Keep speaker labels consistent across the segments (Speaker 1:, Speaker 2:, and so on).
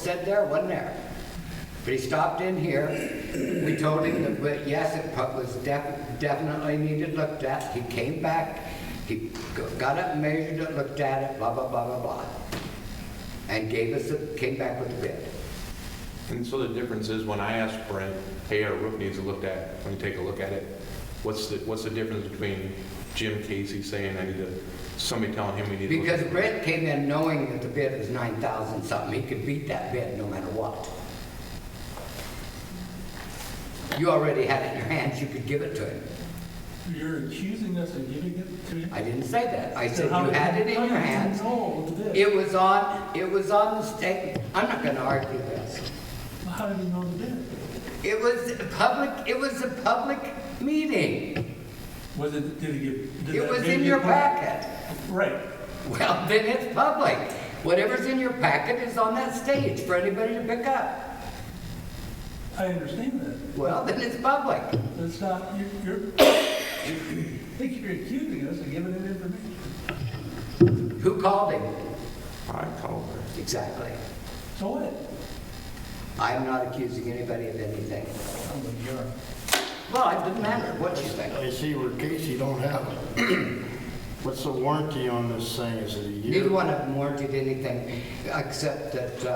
Speaker 1: said there, wasn't there? But he stopped in here, we told him that, but yes, it pu- was def- definitely needed looked at, he came back, he g- got it measured it, looked at it, blah, blah, blah, blah, blah, and gave us, a- came back with a bid.
Speaker 2: And so the difference is when I ask Brent, hey, our roof needs a look at, let me take a look at it. What's the, what's the difference between Jim Casey saying I need to, somebody telling him we need to look at
Speaker 1: Because
Speaker 2: it?
Speaker 1: Brent came in knowing that the bid was nine thousand something, he could beat that bid no matter what. You already had it in your hands, you could give it to him.
Speaker 3: You're accusing us of giving it to him?
Speaker 1: I didn't say that, I said you had it in your hands,
Speaker 3: No, the bid.
Speaker 1: it was on, it was on the state, I'm not gonna argue this.
Speaker 3: How did he know the bid?
Speaker 1: It was a public, it was a public meeting,
Speaker 3: Was it, did he give? did
Speaker 1: it
Speaker 3: that
Speaker 1: was
Speaker 3: bid
Speaker 1: in
Speaker 3: get
Speaker 1: your
Speaker 3: put-
Speaker 1: packet.
Speaker 3: Right.
Speaker 1: Well, then it's public. Whatever's in your packet is on that stage for anybody to pick up.
Speaker 3: I understand that.
Speaker 1: Well, then it's public.
Speaker 3: That's not, you're, you're, I think you're accusing us of giving it information.
Speaker 1: Who called him?
Speaker 2: I called her.
Speaker 1: Exactly.
Speaker 3: So what?
Speaker 1: I'm not accusing anybody of anything.
Speaker 3: I don't think you are.
Speaker 1: Well, it doesn't matter what you think.
Speaker 4: I see where Casey don't have it. What's the warranty on this thing? Is it a year?
Speaker 1: Neither one of them warranted anything, except that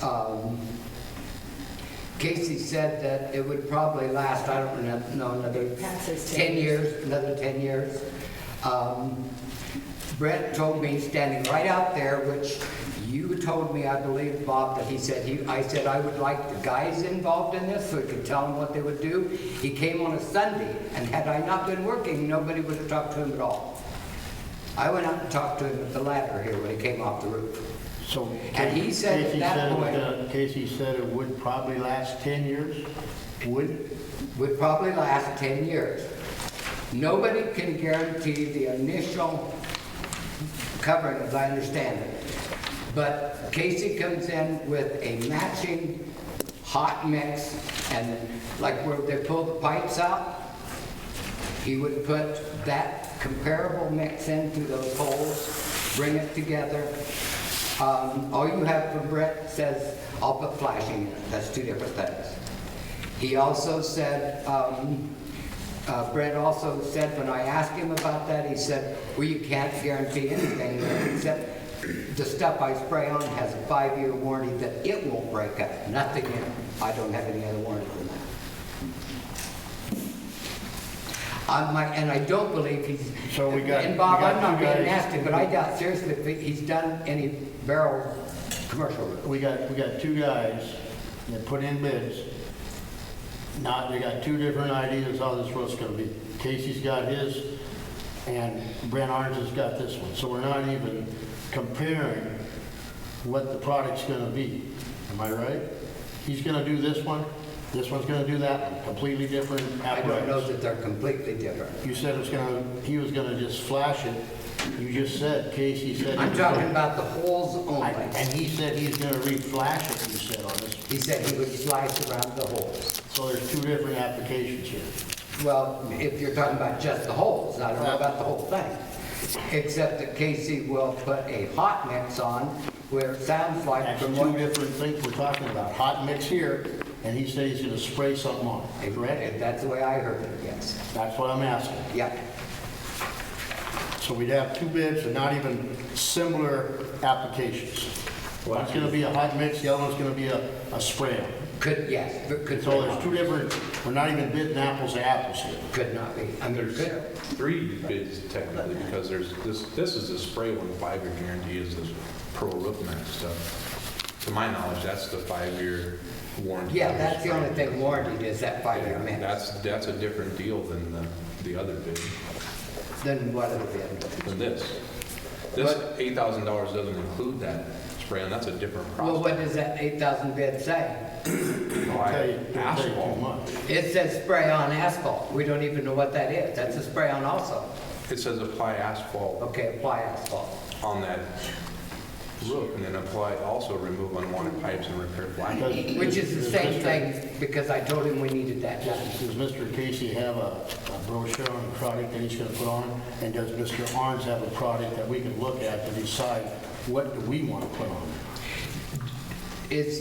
Speaker 1: um, um, Casey said that it would probably last, I don't kno- know, another
Speaker 5: Pat says
Speaker 1: 10
Speaker 5: ten
Speaker 1: years, another 10 years. Um, Brett told me, standing right out there, which you told me, I believe, Bob, that he said, he, I said I would like the guys involved in this, so I could tell them what they would do. He came on a Sunday, and had I not been working, nobody would have talked to him at all. I went out and talked to him at the ladder here when he came off the roof.
Speaker 4: So.
Speaker 1: And he said at
Speaker 4: Casey
Speaker 1: that
Speaker 4: said it
Speaker 1: point-
Speaker 4: would, uh, Casey said it would probably last 10 years? Would?
Speaker 1: Would probably last 10 years. Nobody can guarantee the initial covering, as I understand it. But Casey comes in with a matching hot mix, and like where they pull the pipes out, he would put that comparable mix into those holes, bring it together. Um, All you have from Brett says, I'll put flashing in it, that's two different things. He also said, um, uh, Brett also said, when I asked him about that, he said, well, you can't guarantee anything except the stuff I spray on has a five-year warranty that it won't break up, nothing in it. I don't have any other warranty than that. I might, and I don't believe he's.
Speaker 4: So we got-
Speaker 1: And Bob,
Speaker 4: we got
Speaker 1: I'm not
Speaker 4: two
Speaker 1: being
Speaker 4: guys.
Speaker 1: nasty, but I doubt seriously if he's done any barrel commercial roof.
Speaker 4: We got, we got two guys that put in bids. Now, they got two different ideas how this roof's gonna be. Casey's got his, and Brent Arns has got this one. So we're not even comparing what the product's gonna be. Am I right? He's gonna do this one, this one's gonna do that one, completely different
Speaker 1: I don't know
Speaker 4: apparatus.
Speaker 1: that they're completely different.
Speaker 4: You said it's gonna, he was gonna just flash it. You just said, Casey said. he
Speaker 1: I'm
Speaker 4: was
Speaker 1: talking
Speaker 4: gonna-
Speaker 1: about the holes
Speaker 4: I-
Speaker 1: only.
Speaker 4: And he said he's gonna re-flash it, you said on this
Speaker 1: He said he would slice around the holes.
Speaker 4: So there's two different applications here.
Speaker 1: Well, if you're talking about just the holes, I don't know about the whole thing. Except that Casey will put a hot mix on where it sounds like
Speaker 4: That's
Speaker 1: from
Speaker 4: two
Speaker 1: what.
Speaker 4: different things we're talking about. Hot mix here, and he said he's gonna spray something on it, correct?
Speaker 1: That's the way I heard it, yes.
Speaker 4: That's what I'm asking.
Speaker 1: Yeah,
Speaker 4: So we'd have two bids and not even similar applications. One's gonna be a hot mix, the other one's gonna be a, a spray on.
Speaker 1: could, yes, but could.
Speaker 4: So there's two different, we're not even bidding apples to apples here.
Speaker 1: Could not be. I mean,
Speaker 2: There's
Speaker 1: could.
Speaker 2: three bids technically because there's, this, this is the spray one, five-year guarantee is this pro roof max stuff. To my knowledge, that's the five-year warranty.
Speaker 1: Yeah, that's the only thing warranted is that five-year
Speaker 2: Yeah,
Speaker 1: mix.
Speaker 2: That's, that's a different deal than the, the other bid,
Speaker 1: Then what have it been?
Speaker 2: than this. This
Speaker 1: But-
Speaker 2: eight thousand dollars doesn't include that spray on, that's a different
Speaker 1: Well,
Speaker 2: process.
Speaker 1: what does that eight thousand bid say?
Speaker 4: Don't tell you, don't tell you too
Speaker 2: Asphalt.
Speaker 4: much.
Speaker 1: It says spray on asphalt. We don't even know what that is. That's a spray on also.
Speaker 2: It says apply asphalt
Speaker 1: Okay, apply asphalt.
Speaker 2: on that roof and then apply, also remove unwanted pipes and repair flashing.
Speaker 4: Does-
Speaker 1: Which is the
Speaker 4: does
Speaker 1: same
Speaker 4: Mr.
Speaker 1: thing because I told him we needed that done.
Speaker 4: Does Mr. Casey have a a brochure on the product that he's going to put on? And does Mr. Arns have a product that we can look at to decide what do we want to put on?
Speaker 1: It's